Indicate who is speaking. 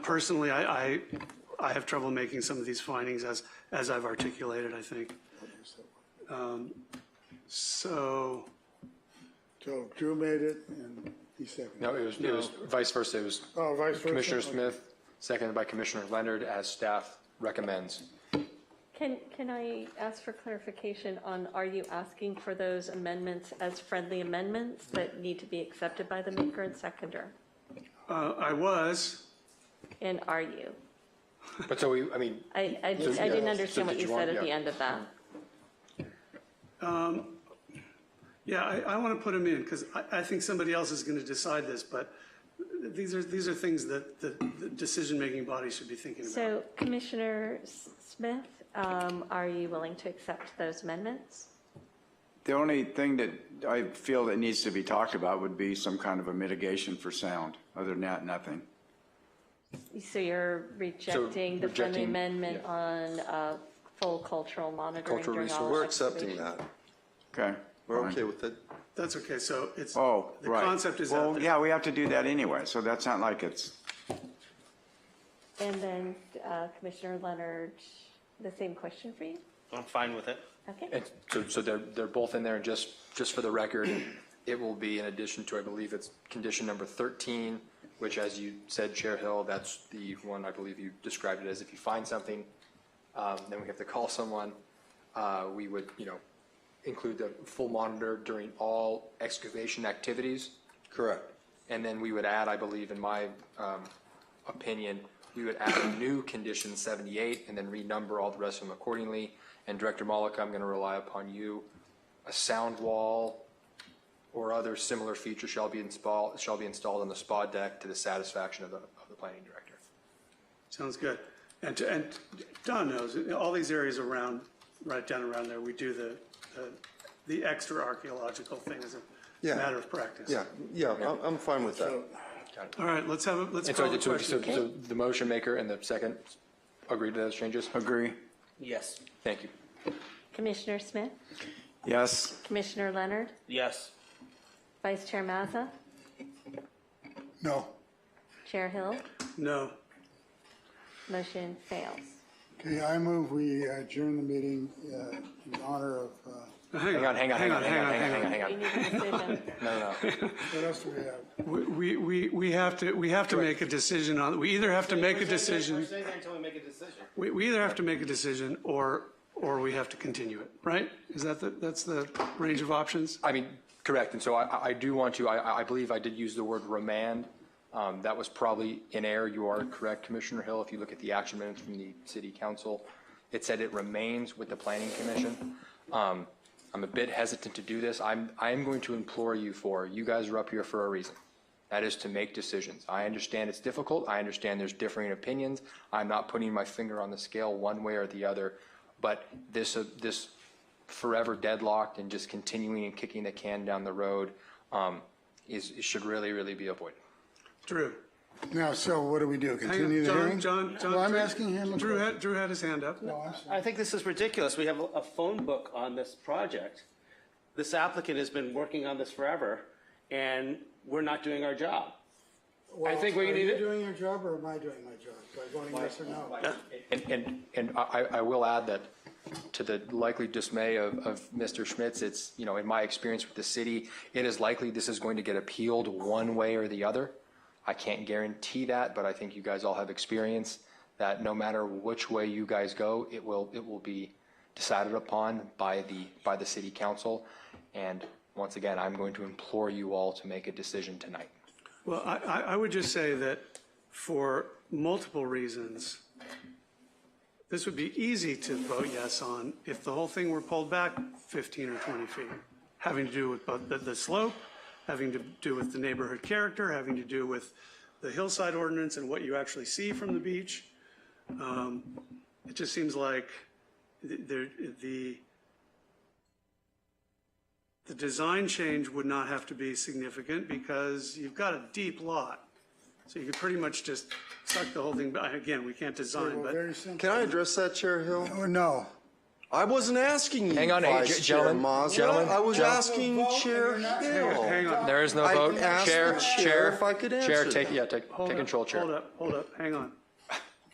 Speaker 1: Personally, I, I, I have trouble making some of these findings as, as I've articulated, I think. Um, So,
Speaker 2: So Drew made it and he seconded.
Speaker 3: No, it was, it was vice versa. It was
Speaker 2: Oh, vice versa?
Speaker 3: Commissioner Smith, seconded by Commissioner Leonard, as staff recommends.
Speaker 4: Can, can I ask for clarification on, are you asking for those amendments as friendly amendments that need to be accepted by the maker and seconder?
Speaker 1: uh, I was,
Speaker 4: And are you?
Speaker 3: But so we, I mean,
Speaker 4: I, I just, I didn't understand what you said at the end of that.
Speaker 1: yeah, I, I want to put them in because I, I think somebody else is going to decide this, but these are, these are things that the, the decision-making body should be thinking about.
Speaker 4: So Commissioner S- Smith, um, are you willing to accept those amendments?
Speaker 5: The only thing that I feel that needs to be talked about would be some kind of a mitigation for sound. Other than that, nothing.
Speaker 4: So you're rejecting the friendly
Speaker 3: rejecting-
Speaker 4: amendment
Speaker 3: yeah.
Speaker 4: on uh, full cultural monitoring
Speaker 3: Cultural
Speaker 4: during all
Speaker 3: resource.
Speaker 6: We're
Speaker 4: activities?
Speaker 6: accepting that.
Speaker 5: Okay?
Speaker 6: We're
Speaker 5: fine.
Speaker 6: okay with it.
Speaker 1: That's okay, so it's,
Speaker 5: Oh,
Speaker 1: the
Speaker 5: right.
Speaker 1: concept is out
Speaker 5: Well,
Speaker 1: there.
Speaker 5: yeah, we have to do that anyway, so that's not like it's,
Speaker 4: And then uh, Commissioner Leonard, the same question for you?
Speaker 7: I'm fine with it.
Speaker 4: Okay.
Speaker 3: and so, so they're, they're both in there, and just, just for the record, it will be in addition to, I believe it's condition number 13, which as you said, Chair Hill, that's the one, I believe you described it as, if you find something, um, then we have to call someone. Uh, We would, you know, include the full monitor during all excavation activities.
Speaker 6: Correct.
Speaker 3: And then we would add, I believe, in my um, opinion, we would add a new condition 78 and then renumber all the rest of them accordingly. And Director Malika, I'm going to rely upon you. A sound wall or other similar feature shall be installed, shall be installed on the spa deck to the satisfaction of the, of the planning director.
Speaker 1: Sounds good. And, to- and Don knows, all these areas around, right down around there, we do the, the- the extra archaeological thing as a
Speaker 6: Yeah.
Speaker 1: matter of practice.
Speaker 6: Yeah, yeah, I'm, I'm fine with that.
Speaker 1: All right, let's have, a let's
Speaker 3: And
Speaker 1: call
Speaker 3: so,
Speaker 1: the
Speaker 3: so,
Speaker 1: question.
Speaker 3: so so the motion maker and the second agree to those changes?
Speaker 5: agree?
Speaker 7: Yes.
Speaker 3: Thank you.
Speaker 4: Commissioner Smith,
Speaker 5: Yes,
Speaker 4: Commissioner Leonard,
Speaker 7: Yes.
Speaker 4: Vice Chair Mazza,
Speaker 2: No.
Speaker 4: Chair Hill,
Speaker 1: No,
Speaker 4: motion fails.
Speaker 2: Okay, I move we adjourn the meeting uh, in honor of, uh,
Speaker 3: Hang on, hang on, hang on, hang on, hang on, hang
Speaker 4: We
Speaker 3: on.
Speaker 4: need a decision.
Speaker 2: what else do we have?
Speaker 1: We- we, we, we have to, we have to make a decision on, we either have to make a
Speaker 8: We're sitting there-
Speaker 1: decision,
Speaker 8: We're sitting there until we make a decision.
Speaker 1: we, we either have to make a decision or, or we have to continue it, right? Is that the, that's the range of options?
Speaker 3: I mean, correct, and so I- I, I do want to, I, I believe I did use the word remand. Um, That was probably in error, you are correct, Commissioner Hill, if you look at the action minutes from the city council, it said it remains with the planning commission. Um, I'm a bit hesitant to do this, I'm, I am going to implore you for, you guys are up here for a reason. That is to make decisions. I understand it's difficult, I understand there's differing opinions, I'm not putting my finger on the scale one way or the other, but this, uh, this forever deadlocked and just continuing and kicking the can down the road um, is, should really, really be avoided.
Speaker 1: Drew?
Speaker 2: Now, so what do we do?
Speaker 1: hang on.
Speaker 2: Continue the
Speaker 1: John-
Speaker 2: hearing?
Speaker 1: John, John.
Speaker 2: Well, I'm
Speaker 1: Drew-
Speaker 2: asking him. a
Speaker 1: Drew
Speaker 2: question.
Speaker 1: had, Drew had his hand up.
Speaker 2: Oh, I'm sorry.
Speaker 8: I think this is ridiculous. We have a a phone book on this project. This applicant has been working on this forever, and we're not doing our job. I think we
Speaker 2: Well,
Speaker 8: need
Speaker 2: Are you
Speaker 8: to-
Speaker 2: doing your job or am I doing my job? By voting yes or no?
Speaker 3: And, and, and I, I will add that to the likely dismay of, of Mr. Schmitz, it's, you know, in my experience with the city, it is likely this is going to get appealed one way or the other. I can't guarantee that, but I think you guys all have experience that no matter which way you guys go, it will, it will be decided upon by the, by the city council. And once again, I'm going to implore you all to make a decision tonight.
Speaker 1: Well, I, I, I would just say that for multiple reasons, this would be easy to vote yes on if the whole thing were pulled back 15 or 20 feet, having to do with both the, the slope, having to do with the neighborhood character, having to do with the hillside ordinance and what you actually see from the beach. Um, It just seems like th- there, the, the design change would not have to be significant because you've got a deep lot. So you could pretty much just suck the whole thing, but again, we can't design,
Speaker 2: Well,
Speaker 1: but.
Speaker 2: Very simple.
Speaker 6: Can I address that, Chair Hill?
Speaker 2: Oh, No.
Speaker 6: I wasn't asking you,
Speaker 3: Hang on, hey,
Speaker 6: Vice
Speaker 3: ge-
Speaker 6: Chair
Speaker 3: gentlemen,
Speaker 6: Mazza.
Speaker 3: gentlemen,
Speaker 6: I was
Speaker 3: gentlemen.
Speaker 6: asking
Speaker 2: Vote and
Speaker 6: Chair
Speaker 2: you're not-
Speaker 6: Hill.
Speaker 1: Hang on.
Speaker 3: There is no
Speaker 6: I
Speaker 3: vote.
Speaker 6: asked
Speaker 3: Chair,
Speaker 6: the
Speaker 3: chair,
Speaker 6: chair if I could
Speaker 3: Chair,
Speaker 6: answer
Speaker 3: take,
Speaker 6: that.
Speaker 3: yeah, take,
Speaker 1: Hold
Speaker 3: take
Speaker 1: up,
Speaker 3: control, Chair.
Speaker 1: Hold up, hold up, hang on.